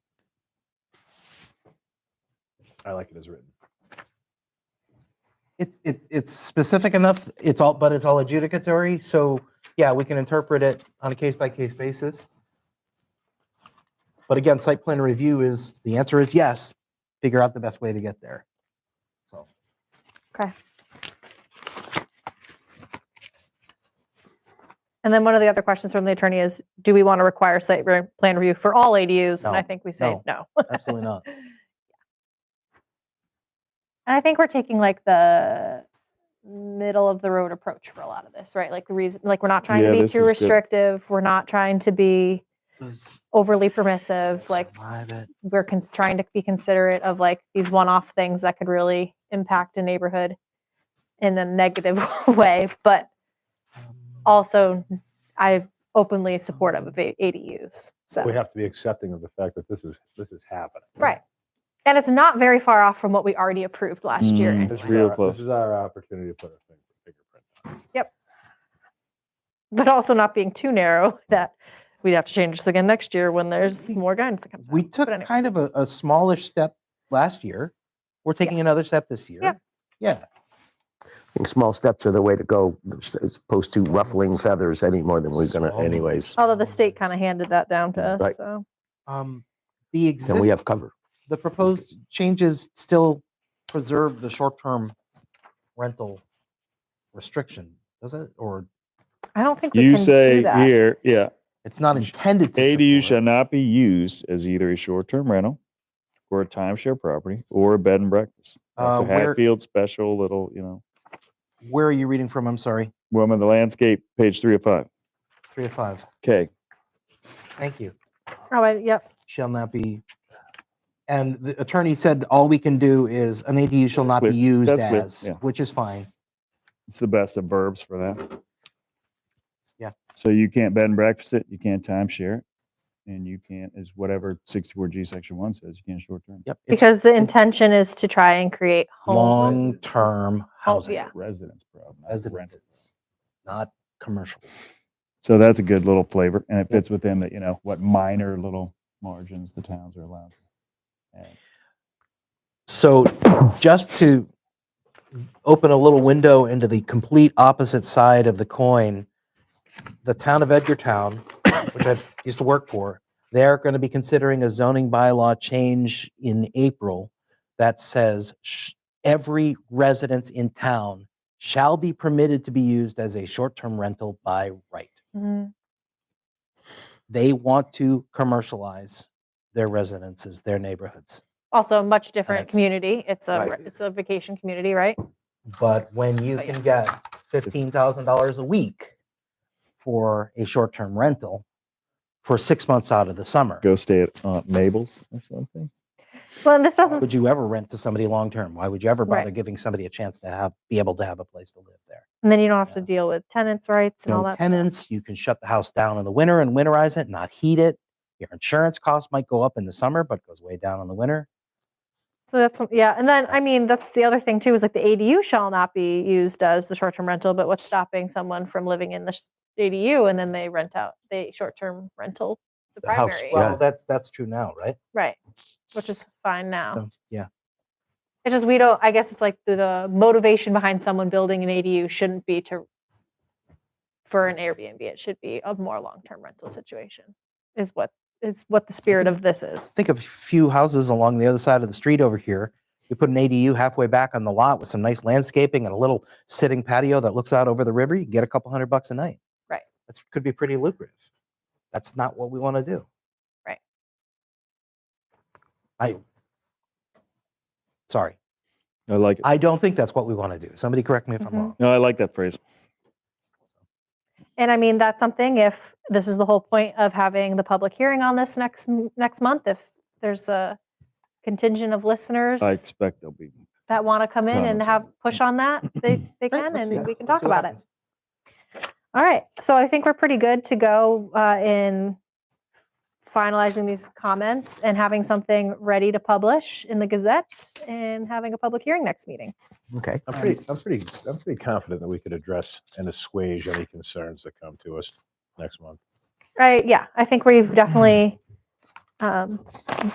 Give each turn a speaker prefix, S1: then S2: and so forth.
S1: I like it as written.
S2: It's, it, it's specific enough, it's all, but it's all adjudicatory, so, yeah, we can interpret it on a case-by-case basis. But again, site plan review is, the answer is yes, figure out the best way to get there. So,
S3: Okay. And then one of the other questions from the attorney is, do we want to require site re- plan review for all ADUs? And I
S2: No,
S3: think we say
S2: no.
S3: no.
S2: absolutely not.
S3: And I think we're taking like the middle of the road approach for a lot of this, right? Like the reason, like we're not trying
S1: Yeah,
S3: to be
S1: this
S3: too
S1: is good.
S3: restrictive. We're not trying to be overly permissive. Like we're cons- trying to be considerate of like these one-off things that could really impact a neighborhood in a negative way, but also I openly supportive of A- ADUs. So
S1: We have to be accepting of the fact that this is, this is happening.
S3: right, and it's not very far off from what we already approved last year.
S4: Mm.
S3: anyway.
S1: This is
S4: Real
S1: our-
S4: close.
S1: This is our opportunity to put our finger- fingerprint. on it.
S3: but also not being too narrow that we'd have to change this again next year when there's more guidance that comes out.
S2: We took
S3: anyway.
S2: kind of a, a smallish step last year. We're taking another step this year.
S3: Yeah.
S2: Yeah,
S5: think small steps are the way to go, as opposed to ruffling feathers any more than we're gonna
S2: Small.
S5: anyways.
S3: Although the state kind of handed that down to us,
S5: Right.
S3: so
S2: um, the
S5: And we
S2: existing,
S5: have cover.
S2: the proposed changes still preserve the short-term rental restriction, does it? Or
S3: I don't think we
S4: You
S3: can do
S4: say
S3: that.
S4: here, yeah,
S2: it's not intended to.
S4: ADU shall
S2: support-
S4: not be used as either a short-term rental or a timeshare property or a bed and breakfast. That's
S2: Uh,
S4: a
S2: where-
S4: Hatfield special little, you know,
S2: Where are you reading from? I'm sorry.
S4: woman, the landscape, page three of five.
S2: Three of five.
S4: Okay.
S2: Thank you.
S3: Oh, I, yep.
S2: Shall not be. And the attorney said all we can do is an ADU shall not be
S4: Clear.
S2: used
S4: That's clear,
S2: as,
S4: yeah.
S2: which is fine.
S4: It's the best of verbs for that.
S2: Yeah.
S4: So you can't bed and breakfast it, you can't timeshare it, and you can't, is whatever sixty-four G section one says, you can't short-term.
S2: Yep. it's
S3: Because the intention is to try and create home.
S2: Long-term housing.
S3: Oh, yeah.
S4: Residence problem. not rental.
S2: Residences, not commercial.
S4: So that's a good little flavor and it fits within the, you know, what minor little margins the towns are allowed. to add.
S2: So just to open a little window into the complete opposite side of the coin, the town of Edgartown, which I used to work for, they're going to be considering a zoning bylaw change in April that says sh- every residence in town shall be permitted to be used as a short-term rental by right.
S3: Mhm.
S2: They want to commercialize their residences, their neighborhoods.
S3: Also, a much different
S2: it's-
S3: community. It's a
S2: Right.
S3: re- it's a vacation community, right?
S2: But when you
S3: But yeah.
S2: can get fifteen thousand dollars a week for a short-term rental for six months out of the summer,
S4: Go stay at Aunt Mabel's or something.
S3: Well, and this doesn't.
S2: would you ever rent to somebody long-term? Why would you ever
S3: Right.
S2: bother giving somebody a chance to have, be able to have a place to live there?
S3: and then you don't have to
S2: yeah.
S3: deal with tenants' rights and all
S2: No
S3: that.
S2: tenants, you can shut the house down in the winter and winterize it, not heat it. Your insurance costs might go up in the summer, but goes way down in the winter.
S3: So that's some- yeah. And then I mean, that's the other thing too is like the ADU shall not be used as the short-term rental. But what's stopping someone from living in the sh- ADU and then they rent out the short-term rental the,
S2: The house-
S3: primary,
S2: Well, that's, that's true now, right?
S3: right? Which is fine now.
S2: So, Yeah,
S3: It's just we don't. I guess it's like the, the motivation behind someone building an ADU shouldn't be to for an Airbnb. It should be a more long term rental situation. Is what is what the spirit of this is.
S2: think of a few houses along the other side of the street over here. You put an ADU halfway back on the lot with some nice landscaping and a little sitting patio that looks out over the river, you can get a couple hundred bucks a night.
S3: Right.
S2: That could be pretty lucrative. That's not what we want to do.
S3: Right.
S2: I, sorry,
S4: I like it.
S2: I don't think that's what we want to do. Somebody correct me if I'm
S3: Mhm.
S2: wrong.
S4: No, I like that phrase.
S3: And I mean that's something. If this is the whole point of having the public hearing on this next m- next month, if there's a contingent of listeners
S4: I expect there'll be.
S3: that want to come in and
S4: comments Mm-hmm. on
S3: have push on that, they they
S2: Right,
S3: can,
S2: let's see.
S3: and we can
S2: Let's
S3: talk
S2: see what
S3: about it.
S2: happens.
S3: All right, so I think we're pretty good to go uh, in finalizing these comments and having something ready to publish in the Gazette and having a public hearing next meeting.
S5: Okay.
S1: I'm pretty, I'm pretty, I'm pretty confident that we could address and assuage any concerns that come to us next month.
S3: Right, yeah, I think we've definitely um,